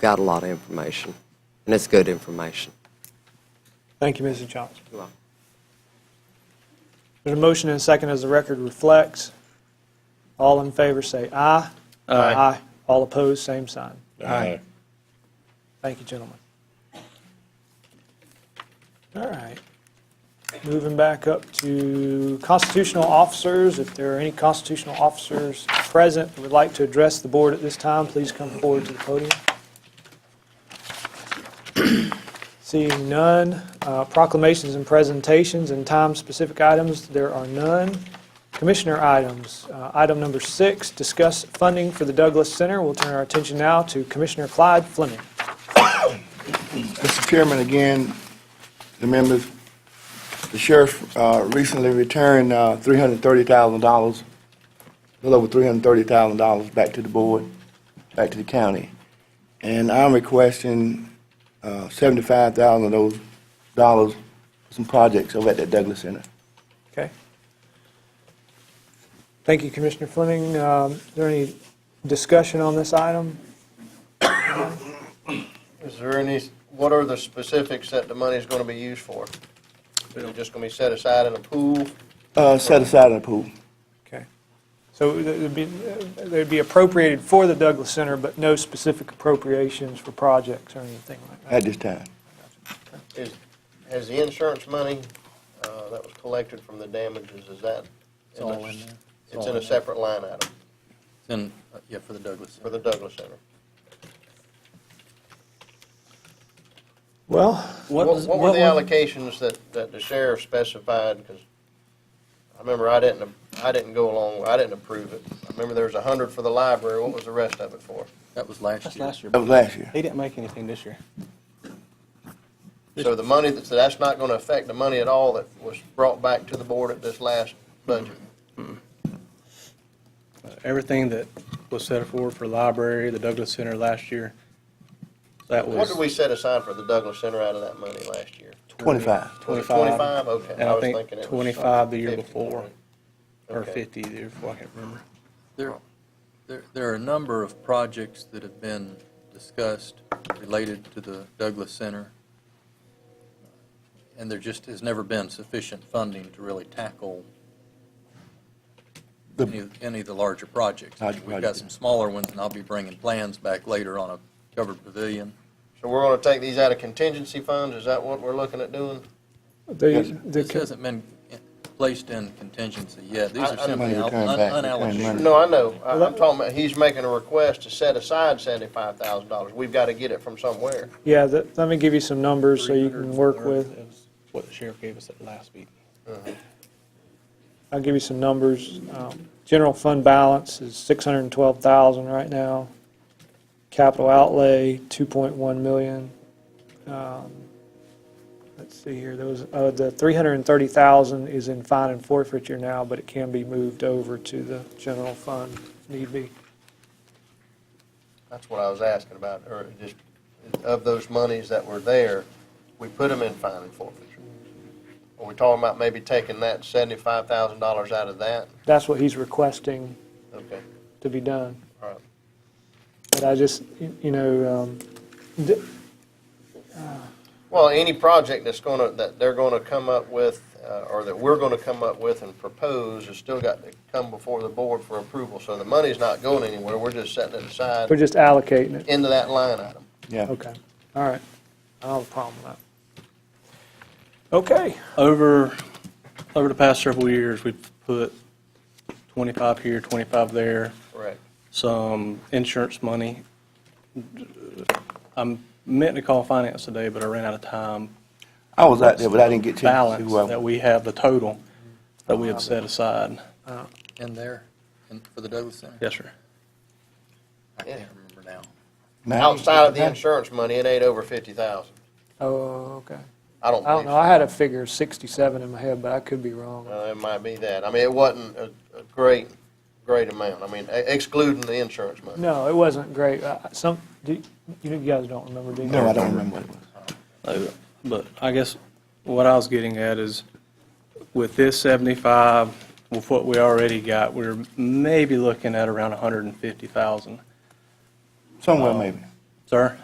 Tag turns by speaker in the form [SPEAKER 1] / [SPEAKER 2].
[SPEAKER 1] got a lot of information, and it's good information.
[SPEAKER 2] Thank you, Mrs. Johnson.
[SPEAKER 1] You're welcome.
[SPEAKER 2] There's a motion and a second as the record reflects. All in favor say aye. Aye. All opposed, same sign.
[SPEAKER 3] Aye.
[SPEAKER 2] Thank you, gentlemen. All right. Moving back up to constitutional officers. If there are any constitutional officers present who would like to address the board at this time, please come forward to the podium. Seeing none, uh, proclamations and presentations and time-specific items, there are none. Commissioner items, Uh, item number six, discuss funding for the Douglas Center. We'll turn our attention now to Commissioner Clyde Fleming.
[SPEAKER 4] Mr. Chairman, again, the members, the sheriff uh, recently returned uh, $330,000, a little over $330,000 back to the board, back to the county. And I'm requesting uh, $75,000 of those dollars, for some projects over at the Douglas Center.
[SPEAKER 2] Okay. Thank you, Commissioner Fleming. Um, Is there any discussion on this item?
[SPEAKER 5] Is there any, what are the specifics that the money is going to be used for? Is it just going to be set aside in a pool?
[SPEAKER 4] Uh, Set aside in the pool.
[SPEAKER 2] Okay. So th- it'd be, they'd be appropriated for the Douglas Center, but no specific appropriations for projects or anything like that?
[SPEAKER 4] at this time.
[SPEAKER 5] Is, has the insurance money uh, that was collected from the damages, is that? It's
[SPEAKER 3] all in there. It's all
[SPEAKER 5] It's in
[SPEAKER 3] in
[SPEAKER 5] a
[SPEAKER 3] there.
[SPEAKER 5] separate line item
[SPEAKER 3] Then, uh, yeah, for the Douglas.
[SPEAKER 5] for the Douglas Center.
[SPEAKER 2] Well,
[SPEAKER 5] What
[SPEAKER 3] was-
[SPEAKER 5] what were the
[SPEAKER 3] were-
[SPEAKER 5] allocations that, that the sheriff specified? Because I remember I didn't, I didn't go along, I didn't approve it. I remember there was a hundred for the library, what was the rest of it for?
[SPEAKER 3] That was last year.
[SPEAKER 6] That's last year.
[SPEAKER 4] That was last year.
[SPEAKER 6] He didn't make anything this year.
[SPEAKER 5] So the money, that's, that's not going to affect the money at all that was brought back to the board at this last budget?
[SPEAKER 6] Everything that was set forward for library, the Douglas Center last year, that
[SPEAKER 5] What
[SPEAKER 6] was
[SPEAKER 5] did we set aside for the Douglas Center out of that money last year?
[SPEAKER 4] 25.
[SPEAKER 5] Was it
[SPEAKER 6] 25.
[SPEAKER 5] Twenty-five, okay.
[SPEAKER 6] And I
[SPEAKER 5] was
[SPEAKER 6] think
[SPEAKER 5] thinking it was
[SPEAKER 6] 25 the year
[SPEAKER 5] 50.
[SPEAKER 6] before, or
[SPEAKER 5] Okay.
[SPEAKER 6] 50 the year before, I can't remember.
[SPEAKER 3] There, there, there are a number of projects that have been discussed related to the Douglas Center, Uh, and there just has never been sufficient funding to really tackle
[SPEAKER 4] The-
[SPEAKER 3] any, of- any of the larger projects.
[SPEAKER 4] Larger
[SPEAKER 3] We've got
[SPEAKER 4] projects.
[SPEAKER 3] some smaller ones, and I'll be bringing plans back later on a covered pavilion.
[SPEAKER 5] So we're going to take these out of contingency funds, is that what we're looking at doing?
[SPEAKER 2] the, the
[SPEAKER 3] This
[SPEAKER 2] co-
[SPEAKER 3] hasn't been placed in contingency yet. These
[SPEAKER 5] I-
[SPEAKER 3] are
[SPEAKER 5] I-
[SPEAKER 3] simply un-
[SPEAKER 4] Money returned back, returned
[SPEAKER 3] unallocated.
[SPEAKER 4] money.
[SPEAKER 5] No, I know, I- I'm talking about, he's making a request to set aside seventy-five thousand dollars, we've got to get it from somewhere.
[SPEAKER 2] yeah, the- let me give you some numbers so you can work
[SPEAKER 6] 304
[SPEAKER 2] with.
[SPEAKER 6] is What the sheriff gave us at the last meeting.
[SPEAKER 2] I'll give you some numbers. Um, General fund balance is 612,000 right now. Capital outlay, 2.1 million. Um, Let's see here, there was, uh, the 330,000 is in fine and forfeiture now, but it can be moved over to the general fund if need be.
[SPEAKER 5] That's what I was asking about, or just, of those monies that were there, we put them in fine and forfeiture. Are we talking about maybe taking that seventy-five thousand dollars out of that?
[SPEAKER 2] That's what he's requesting
[SPEAKER 5] Okay,
[SPEAKER 2] to be done.
[SPEAKER 5] all right.
[SPEAKER 2] But I just, you you know, um, d-
[SPEAKER 5] Well, any project that's gonna, that they're gonna come up with, uh, or that we're gonna come up with and propose, has still got to come before the board for approval. So the money's not going anywhere, we're just setting it aside
[SPEAKER 2] we're just allocating it.
[SPEAKER 5] into that line item.
[SPEAKER 4] Yeah.
[SPEAKER 2] Okay, all right. I don't have a problem with that. Okay.
[SPEAKER 6] Over, over the past several years, we've put 25 here, 25 there,
[SPEAKER 5] Correct.
[SPEAKER 6] some insurance money. I'm meant to call finance today, but I ran out of time.
[SPEAKER 4] I was out there, but I didn't get a chance to.
[SPEAKER 6] Balance
[SPEAKER 4] uh,
[SPEAKER 6] that we have, the total that we have set aside.
[SPEAKER 3] In there, in- for the Douglas Center?
[SPEAKER 6] Yes, sir.
[SPEAKER 3] I can't remember now.
[SPEAKER 4] now-
[SPEAKER 5] Outside of the insurance money, it ain't over fifty thousand.
[SPEAKER 2] Oh, okay.
[SPEAKER 5] I don't
[SPEAKER 2] I don't
[SPEAKER 5] believe
[SPEAKER 2] know,
[SPEAKER 5] so.
[SPEAKER 2] I had a figure of 67 in my head, but I could be wrong.
[SPEAKER 5] Uh, It might be that. I mean, it wasn't a, a great, great amount. I mean, e- excluding the insurance money.
[SPEAKER 2] No, it wasn't great. Uh, Some, do you you guys don't remember, do you?
[SPEAKER 4] No, I don't remember what it was.
[SPEAKER 6] Uh, But I guess what I was getting at is with this 75, with what we already got, we're maybe looking at around 150,000.
[SPEAKER 4] Somewhere maybe.
[SPEAKER 6] Sir?